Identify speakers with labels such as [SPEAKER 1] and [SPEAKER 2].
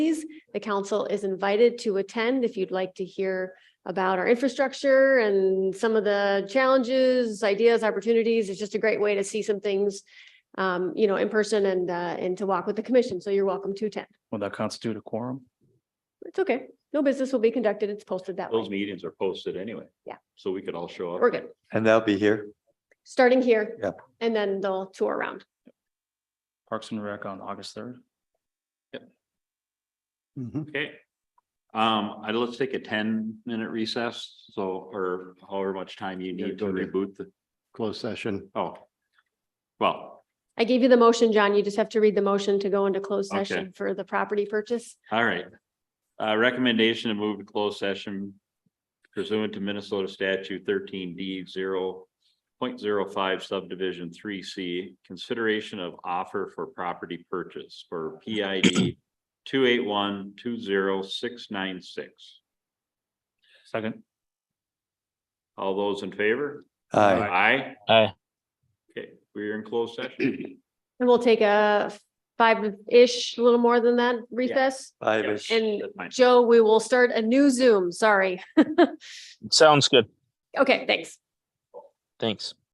[SPEAKER 1] The council is invited to attend if you'd like to hear about our infrastructure and some of the challenges, ideas, opportunities. It's just a great way to see some things, um, you know, in person and, uh, and to walk with the commission. So you're welcome to attend.
[SPEAKER 2] Will that constitute a quorum?
[SPEAKER 1] It's okay. No business will be conducted. It's posted that
[SPEAKER 3] Those
[SPEAKER 1] way.
[SPEAKER 3] meetings are posted anyway.
[SPEAKER 1] Yeah.
[SPEAKER 3] So we could all show up.
[SPEAKER 1] We're good.
[SPEAKER 4] And that'll be here.
[SPEAKER 1] Starting here.
[SPEAKER 4] Yep.
[SPEAKER 1] And then they'll tour around.
[SPEAKER 2] Parks and Rec on August third.
[SPEAKER 3] Okay. Um, I, let's take a ten minute recess, so, or however much time you
[SPEAKER 5] Yeah,
[SPEAKER 3] need to
[SPEAKER 5] go to-
[SPEAKER 3] reboot the,
[SPEAKER 5] closed session.
[SPEAKER 3] oh. Well,
[SPEAKER 1] I gave you the motion, John. You just have to read the motion to go into closed
[SPEAKER 3] Okay.
[SPEAKER 1] session for the property purchase.
[SPEAKER 3] all right. Uh, recommendation to move to closed session pursuant to Minnesota statute thirteen D zero point zero five subdivision three C, consideration of offer for property purchase for PID two eight one two zero six nine six.
[SPEAKER 2] Second.
[SPEAKER 3] All those in favor?
[SPEAKER 4] Aye.
[SPEAKER 3] Aye.
[SPEAKER 2] Aye.
[SPEAKER 3] Okay, we're in closed session.
[SPEAKER 1] And we'll take a five-ish, a little more than that recess.
[SPEAKER 4] Five is-
[SPEAKER 1] And
[SPEAKER 3] That's fine.
[SPEAKER 1] Joe, we will start a new Zoom. Sorry.
[SPEAKER 6] Sounds good.
[SPEAKER 1] Okay, thanks.
[SPEAKER 6] Thanks.